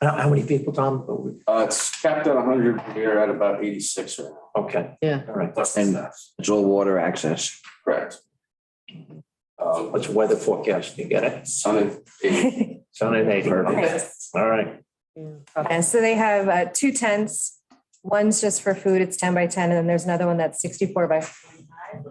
I don't know how many people, Tom, but we, Uh, it's capped at hundred, we're at about eighty-six right now. okay. Yeah. All right, Plus the And- staff. It's all water access. Correct. Um, what's the weather forecast? You get it? sun and eight. Sun and eighty. Okay. All right. And so they have uh, two tents. One's just for food, it's ten by ten, and then there's another one that's sixty-four by forty-five.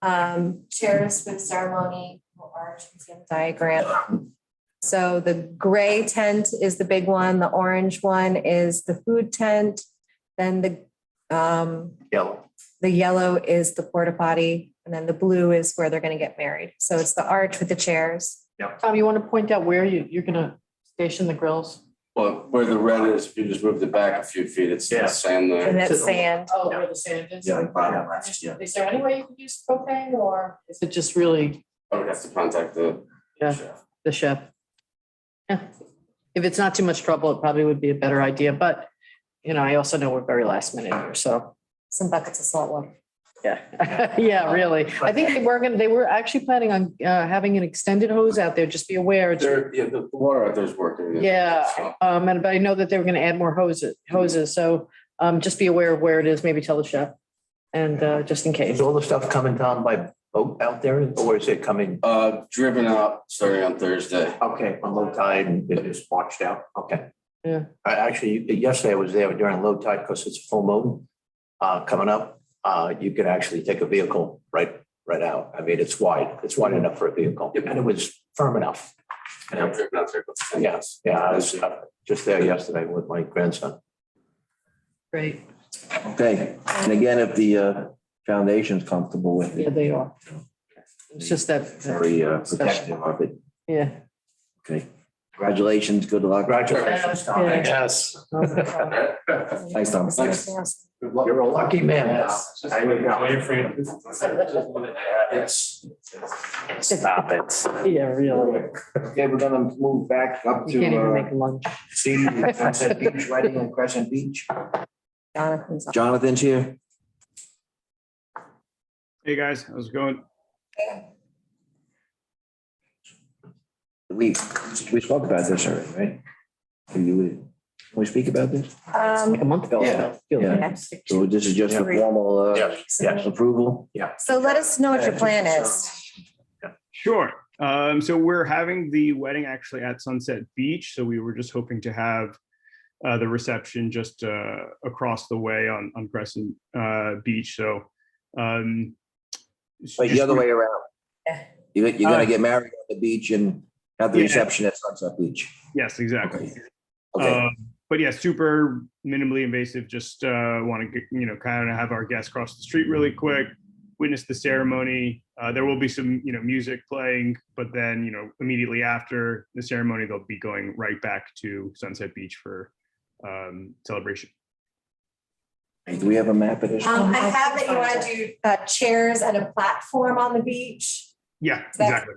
Um, chairs with ceremony, little arch, you see on the diagram. So the gray tent is the big one, the orange one is the food tent. Then the, um, Yellow. the yellow is the porta potty, and then the blue is where they're gonna get married. So it's the arch with the chairs. Tom, you want to point out where you, you're gonna station the grills? Well, where the red is, if you just moved it back a few feet, it's Yeah. the sand there. And that's sand. Oh, where the sand is? yeah. Is there any way you could use propane or? Is it just really I would have to contact the. Yeah. chef. the chef? Yeah. If it's not too much trouble, it probably would be a better idea, but, you know, I also know we're very last minute here, so, Some buckets of salt water. yeah. Yeah, really. I think they were gonna, they were actually planning on uh, having an extended hose out there, just be aware. it's- There, yeah, the the water out there's working. Yeah, So, Um, and but I know that they were gonna add more hoses, hoses, so um, just be aware of where it is, maybe tell the chef. And uh, just in Is case, all the stuff coming down by boat out there or is it coming? Uh, driven out starting on Thursday. Okay, on low tide and it is washed out. Okay. Yeah. I actually, yesterday I was there during low tide because it's full moon uh, coming up. Uh, you could actually take a vehicle right, right out. I mean, it's wide. It's wide enough for a vehicle Yep. and it was firm enough. And I'm driven out there. Yes, yeah, I was uh, just there yesterday with my grandson. great, Okay, and again, if the uh, foundation's comfortable with yeah, it, they are. It's just that. very uh, protective of it. Yeah. Okay, congratulations, good luck. Congratulations, Tom. Yeah. Yes. Thanks, Tom. You're a lucky man. There you go. Yes. Stop it. Yeah, really. Okay, we're gonna move back up You can't even make lunch. see uh, Sunset Beach Wedding in Crescent Beach. Jonathan's. Jonathan's here. Hey, guys, how's it going? We, we spoke about this already, right? Or You, would- can we speak about this? Um, Like a month ago. Yeah. Yeah. yeah. So this is just a formal uh, yes. approval? So let us know what your plan is. Sure. Um, so we're having the wedding actually at Sunset Beach. So we were just hoping to have uh, the reception just uh, across the way on, on Crescent uh, Beach. So, um, Wait, the just- other way around. Yeah. You, you're gonna Uh, get married at the beach and have the Yeah. reception at Sunset Beach. Yes, exactly. Okay. Okay, Um, but yeah, super minimally invasive. Just uh, want to you know kind of have our guests cross the street really quick, witness the ceremony. Uh, there will be some you know music playing, but then you know immediately after the ceremony, they'll be going right back to Sunset Beach for um, celebration. do we have a map of this? Um, I have that you want to do uh, chairs and a platform on the beach. Yeah, That's- exactly.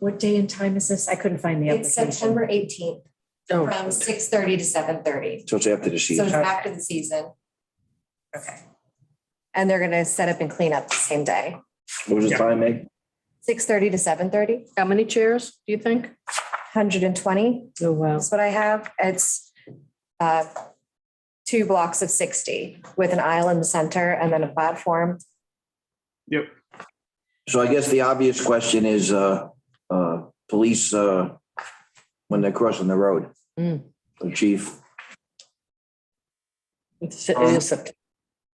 What day and time is this? I couldn't find the It's application. September eighteenth Oh, from six thirty to seven thirty. So it's after the So it's season. after the season. Okay. And they're gonna set up and clean up the same day, What was the Yeah. time, Meg? six thirty to 7:30. 120 How many chairs, do you think? Oh, wow. is what I have. It's uh, two blocks of sixty with an aisle in the center and then a platform. Yep. So I guess the obvious question is, uh, uh, police, uh, when they're crossing the road. Mm. The chief, It's- It is September.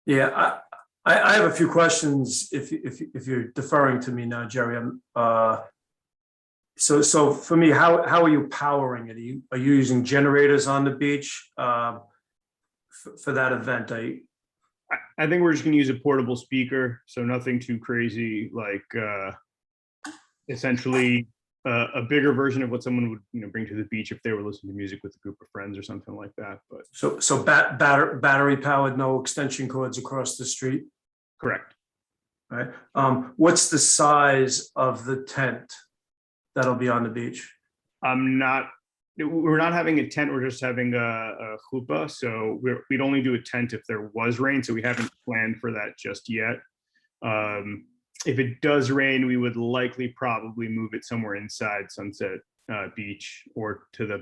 Yeah, I, I, I have a few questions if, you- if, you- if you're deferring to me now, Jerry. I'm, uh, So, so for me, how, how are you powering it? Are you, are you using generators on the beach um, for for that event? Are you- I, I think we're just gonna use a portable speaker, so nothing too crazy, like uh essentially uh, a bigger version of what someone would, you know, bring to the beach if they were listening to music with a group of friends or something like that, but So, so bat, batter, battery powered, no extension cords across the street, correct. right? Um, What's the size of the tent that'll be on the beach? I'm not we're not having a tent, we're just having a, a chuppah, so we're, we'd only do a tent if there was rain, so we haven't planned for that just yet. Um, if it does rain, we would likely probably move it somewhere inside Sunset uh, Beach or to the